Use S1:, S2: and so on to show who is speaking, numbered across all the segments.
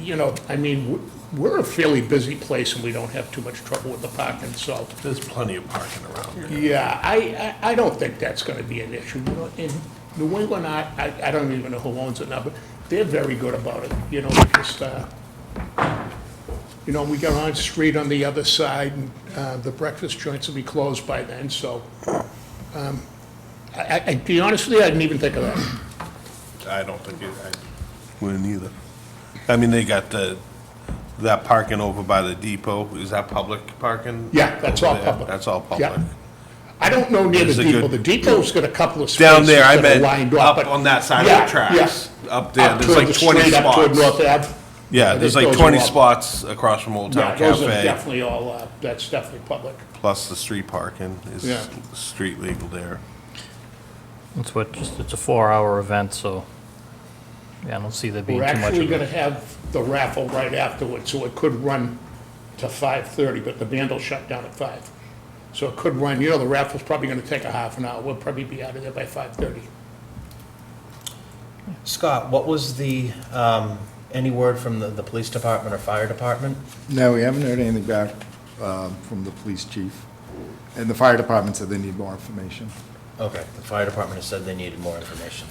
S1: you know, I mean, w- we're a fairly busy place and we don't have too much trouble with the parking, so.
S2: There's plenty of parking around there.
S1: Yeah, I, I, I don't think that's gonna be an issue, you know, in New England, I, I, I don't even know who owns it now, but they're very good about it, you know, they just, uh, you know, we got on street on the other side, and, uh, the breakfast joints will be closed by then, so, um, I, I, I- to be honest with you, I didn't even think of that.
S2: I don't think it, I wouldn't either. I mean, they got the, that parking over by the depot, is that public parking?
S1: Yeah, that's all
S2: over there?
S1: public.
S2: That's all
S1: Yeah.
S2: public.
S1: I don't know near
S2: There's
S1: the
S2: a
S1: depot,
S2: good-
S1: the depot's got a couple of spaces.
S2: Down there, I
S1: that are
S2: meant,
S1: lined
S2: up
S1: but-
S2: on that side
S1: Yeah,
S2: of the tracks,
S1: yeah.
S2: up there, there's
S1: toward
S2: like
S1: the
S2: twenty
S1: street, Up toward North
S2: spots.
S1: Ave.
S2: Yeah, there's
S1: Those
S2: like
S1: are
S2: twenty
S1: all-
S2: spots across from Old
S1: Yeah,
S2: Town
S1: those are
S2: Cafe,
S1: definitely all, uh, that's definitely public.
S2: plus the street parking
S1: Yeah.
S2: is street legal there.
S3: It's what, just, it's a four-hour event, so, yeah, I don't see there being
S1: We're
S3: too much
S1: actually
S3: of
S1: gonna
S3: a...
S1: have the raffle right afterwards, so it could run to five-thirty, but the band will shut down at five. So it could run, you know, the raffle's probably gonna take a half an hour, we'll probably be out of there by five-thirty.
S4: Scott, what was the, um, any word from the, the police department or fire department?
S5: No, we haven't heard anything back um, from the police chief. And the fire department said they need more information.
S4: Okay, the fire department has said they needed more information.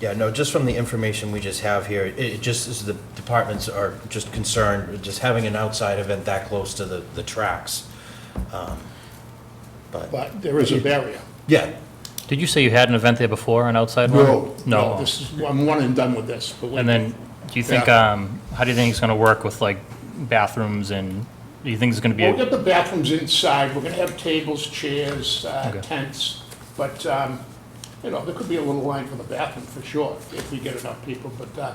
S4: Yeah, no, just from the information we just have here, it, it just is the departments are just concerned, with just having an outside event that close to the, the tracks. Um, But,
S1: But there is a barrier.
S4: yeah,
S3: Did you say you had an event there before, an outside one? No.
S1: Um, This is, I'm one and done with this. believe
S3: And
S1: me.
S3: then, do you think,
S1: Yeah.
S3: um, how do you think it's gonna work with, like, bathrooms and, do you think it's gonna be,
S1: We'll
S3: a-
S1: get the bathrooms inside, we're gonna have tables, chairs, uh,
S3: Okay.
S1: tents, but, um, you know, there could be a little line for the bathroom for sure, if we get enough people, but, uh,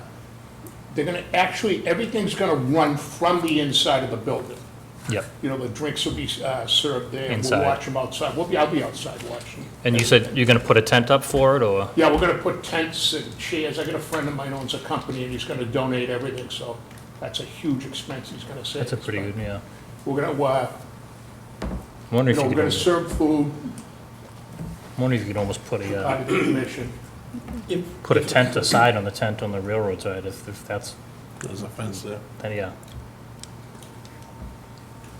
S1: they're gonna, actually, everything's gonna run from the inside of the building.
S3: yep.
S1: You know, the drinks will be uh, served there.
S3: Inside.
S1: We'll watch them outside. We'll be, I'll be outside watching.
S3: And you said you're gonna put a tent up for it, or,
S1: Yeah, we're gonna put tents and chairs. I got a friend of mine owns a company and he's gonna donate everything, so that's a huge expense he's gonna save.
S3: that's a pretty good, yeah.
S1: We're gonna, uh,
S3: I'm
S1: you
S3: wondering if
S1: know,
S3: you
S1: we're gonna
S3: could, almost-
S1: serve food
S3: I'm wondering if you could almost put a,
S1: out
S3: uh,
S1: of the commission.
S3: put a tent aside on the tent on the railroad side, if, if that's,
S2: There's a fence there.
S3: then, yeah.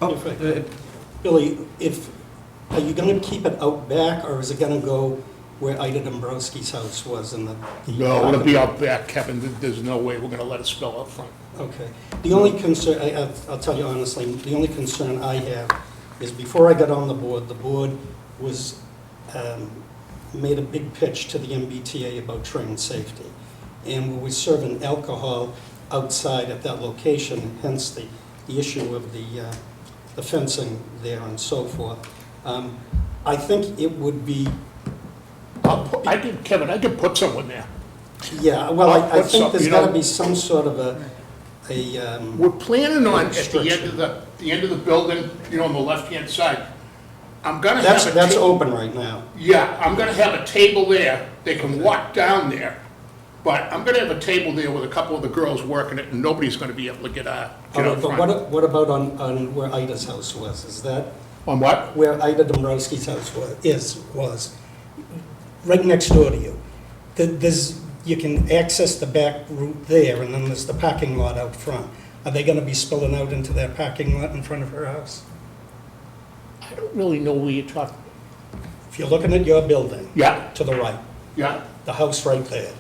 S6: Oh, uh, Billy, if, are you gonna keep it out back, or is it gonna go where Ida Dombrowski's house was in the? the-
S1: No, it'll be out back, Kevin. There- There's no way we're gonna let it spill out front.
S6: Okay. The only concern, I, I'll- I'll tell you honestly, the only concern I have is before I got on the board, the board was, um, made a big pitch to the MBTA about train safety. And we were serving alcohol outside at that location, hence the, the issue of the, uh, the fencing there and so forth. Um, I think it would be,
S1: I'll put, I could, Kevin, I could put someone there.
S6: yeah, well, I, I
S1: What's
S6: think
S1: up,
S6: there's
S1: you know?
S6: gotta be some sort of a, a, um,
S1: We're planning on at the end of the, the end of the building, you know, on the left-hand side. I'm gonna have
S6: that's,
S1: a
S6: that's
S1: ta-
S6: open right now.
S1: Yeah, I'm gonna have a table there, they can walk down there, but I'm gonna have a table there with a couple of the girls working it, and nobody's gonna be able to get out,
S6: All
S1: get out
S6: right, but what,
S1: front.
S6: a- what about on, on where Ida's house was? Is that
S1: On what?
S6: where Ida Dombrowski's house was, is, was? Right next door to you. Th- There's, you can access the back route there, and then there's the parking lot out front. Are they gonna be spilling out into that parking lot in front of her house?
S1: I don't really know where you're talking.
S6: If you're looking at your building,
S1: Yeah,
S6: to the right,
S1: yeah,
S6: the house right there.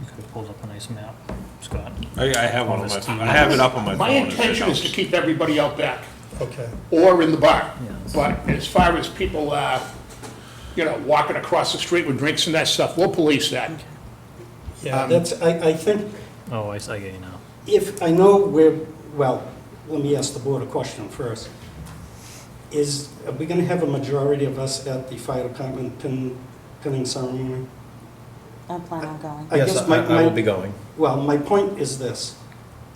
S3: You could have pulled up a nice map, Scott.
S2: I, I have one on
S3: this
S2: my,
S3: TV.
S2: I have it up on my phone.
S1: my
S2: It
S1: intention is to
S2: shows.
S1: keep everybody out back,
S6: Okay.
S1: or in the bar,
S3: that's-
S1: but as far as people, uh, you know, walking across the street with drinks and that stuff, we'll police that. Um,
S6: Yeah, that's, I, I think,
S3: Oh, I, s- I get you now.
S6: If, I know we're, well, let me ask the board a question first. Is, are we gonna have a majority of us at the fire department pin, pinning ceremony?
S7: I plan on going.
S6: I
S4: yes,
S6: guess
S4: I
S6: my-
S4: I will
S6: my-
S4: be going.
S6: Well, my point is this,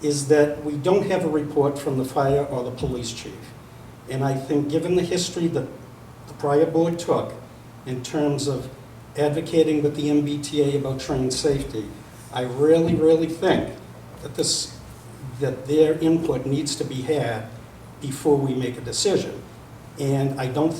S6: is that we don't have a report from the fire or the police chief. And I think, given the history that the prior board took in terms of advocating with the MBTA about train safety, I really, really think that this, that their input needs to be had before we make a decision. And I don't